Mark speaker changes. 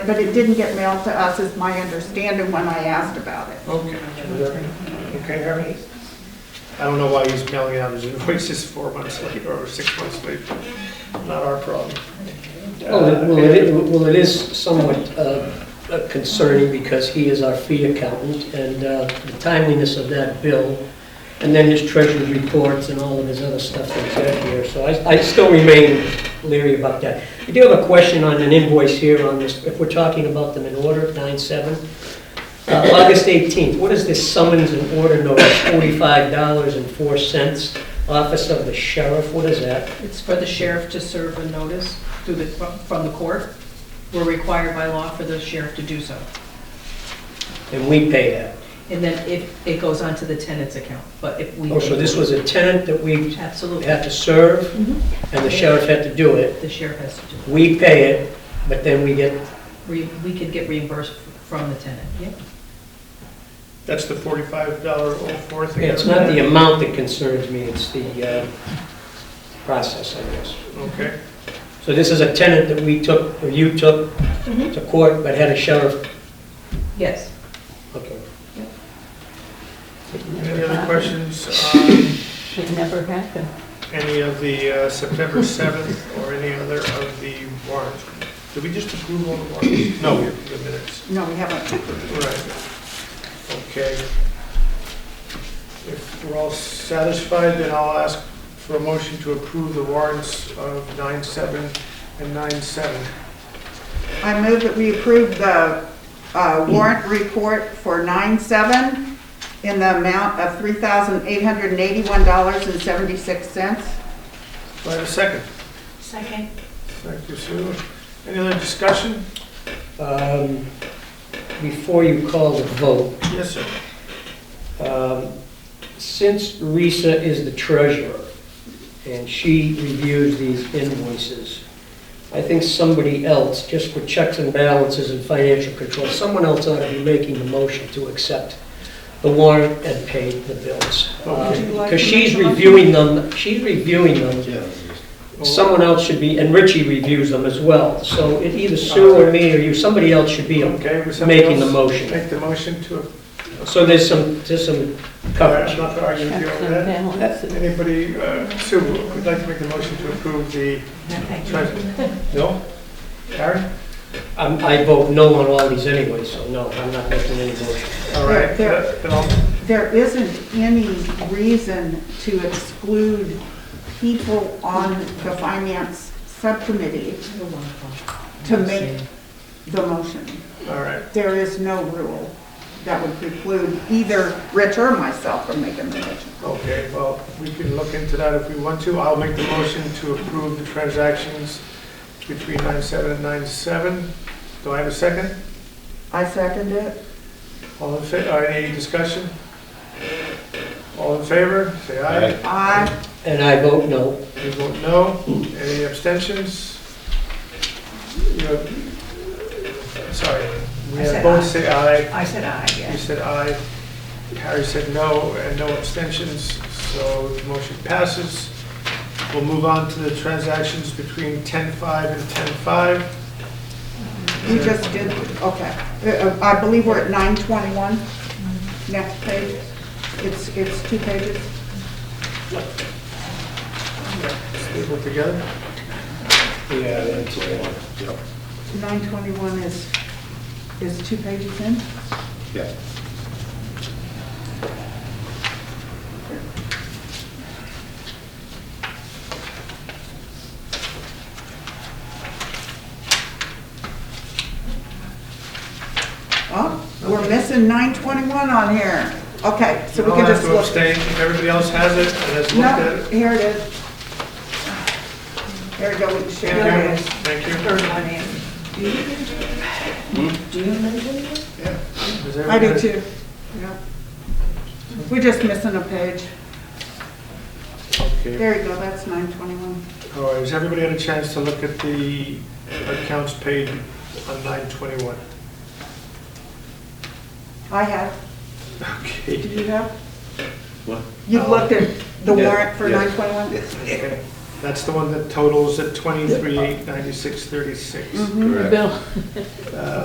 Speaker 1: But it didn't get mailed to us, is my understanding when I asked about it.
Speaker 2: Okay. Okay, Harry?
Speaker 3: I don't know why he's mailing out his invoices four months later or six months later. Not our problem.
Speaker 4: Well, it- well, it, well, it is somewhat uh, concerning because he is our fee accountant and uh, the timeliness of that bill and then his treasury reports and all of his other stuff that's out here. So I, I still remain leery about that. I do have a question on an invoice here on this, if we're talking about them in order, nine seven. Uh, August eighteenth, what is this summons and order notice, forty-five dollars and four cents, office of the sheriff, what is that?
Speaker 5: It's for the sheriff to serve a notice through the, from the court. We're required by law for the sheriff to do so.
Speaker 4: And we pay that.
Speaker 5: And then if, it goes onto the tenant's account, but if we.
Speaker 4: Oh, so this was a tenant that we
Speaker 5: Absolutely.
Speaker 4: had to serve,
Speaker 5: Mhm.
Speaker 4: and the sheriff had to do it.
Speaker 5: The sheriff has to do it.
Speaker 4: We pay it, but then we get,
Speaker 5: We, we could get reimbursed from the tenant, yep.
Speaker 3: That's the forty-five dollar oh four thing.
Speaker 4: it's not the amount that concerns me, it's the uh, process, I guess.
Speaker 3: Okay,
Speaker 4: So this is a tenant that we took, or you took
Speaker 5: Mhm.
Speaker 4: to court, but had a sheriff,
Speaker 5: Yes.
Speaker 4: okay.
Speaker 3: any other questions on
Speaker 6: Should never happen.
Speaker 3: any of the uh, September seventh or any other of the warrants? Did we just approve all the warrants? No, the minutes.
Speaker 1: No, we haven't.
Speaker 3: Right. Okay. If we're all satisfied, then I'll ask for a motion to approve the warrants of nine seven and nine seven.
Speaker 1: I move that we approve the uh, warrant report for 9/7 in the amount of $3,881.76.
Speaker 3: Do I have a second?
Speaker 6: Second.
Speaker 3: Thank you, Sue. Any other discussion?
Speaker 4: Um, Before you call the vote,
Speaker 3: Yes, sir.
Speaker 4: Um, Since Risa is the treasurer, and she reviews these invoices, I think somebody else, just for checks and balances and financial control, someone else ought to be making the motion to accept the warrant and pay the bills. Um,
Speaker 3: Okay.
Speaker 4: Because she's reviewing them, she's reviewing them,
Speaker 3: Um,
Speaker 4: someone else should be, and Richie reviews them as well. So it either Sue or me or you, somebody else should be
Speaker 3: Okay, was somebody
Speaker 4: making the
Speaker 3: else
Speaker 4: motion.
Speaker 3: Make the motion to,
Speaker 4: So there's some, there's some coverage.
Speaker 3: I'm not arguing with you
Speaker 6: Checks
Speaker 3: over
Speaker 6: and
Speaker 3: that.
Speaker 6: balances.
Speaker 3: Anybody, uh, Sue, would like to make the motion to approve the treasurer? No? Karen?
Speaker 4: I'm- I vote no on all these anyway, so no, I'm not making any motion.
Speaker 3: All right,
Speaker 1: There-
Speaker 3: then I'll
Speaker 1: There isn't any reason to exclude people on the finance subcommittee to make the motion.
Speaker 3: All right,
Speaker 1: There is no rule that would preclude either Rich or myself from making the motion.
Speaker 3: okay, well, we can look into that if we want to. I'll make the motion to approve the transactions between 97 and 97. Do I have a second?
Speaker 1: I second it.
Speaker 3: All in fa, uh, any discussion? All in favor, say aye.
Speaker 1: Aye.
Speaker 4: And I vote no.
Speaker 3: You vote no. Any abstentions? You have- Sorry, we
Speaker 5: I
Speaker 3: have
Speaker 5: said
Speaker 3: both
Speaker 5: aye.
Speaker 3: say aye.
Speaker 5: I said aye,
Speaker 3: You
Speaker 5: yeah.
Speaker 3: said aye, Harry said no, and no abstentions, so the motion passes. We'll move on to the transactions between 10-5 and 10-5.
Speaker 1: We just did, okay. Uh, uh, I believe we're at 921. Next page. It's, it's two pages.
Speaker 3: Let's look together.
Speaker 4: Yeah, that's it.
Speaker 1: 921 is, is two pages in?
Speaker 7: Yeah.
Speaker 1: Oh, we're missing 921 on here. Okay, so
Speaker 3: You
Speaker 1: we
Speaker 3: all
Speaker 1: can
Speaker 3: have
Speaker 1: just
Speaker 3: to
Speaker 1: look.
Speaker 3: abstain, if everybody else has it and has looked at
Speaker 1: No,
Speaker 3: it.
Speaker 1: here it is. There we go, we can share
Speaker 3: Thank
Speaker 1: it.
Speaker 3: you, thank you.
Speaker 5: Third one in. Do you remember that?
Speaker 3: Does
Speaker 1: I do
Speaker 3: everybody-
Speaker 1: too. Yeah. We're just missing a page.
Speaker 3: Okay.
Speaker 1: There you go, that's 921.
Speaker 3: All right, has everybody had a chance to look at the accounts paid on 921?
Speaker 1: I have.
Speaker 3: Okay.
Speaker 1: Do you have?
Speaker 7: What?
Speaker 1: You've looked at the
Speaker 7: Yeah,
Speaker 1: warrant for
Speaker 7: yeah.
Speaker 1: 921?
Speaker 3: Okay. That's the one that totals at twenty-three, eight, ninety-six, thirty-six.
Speaker 6: Bill.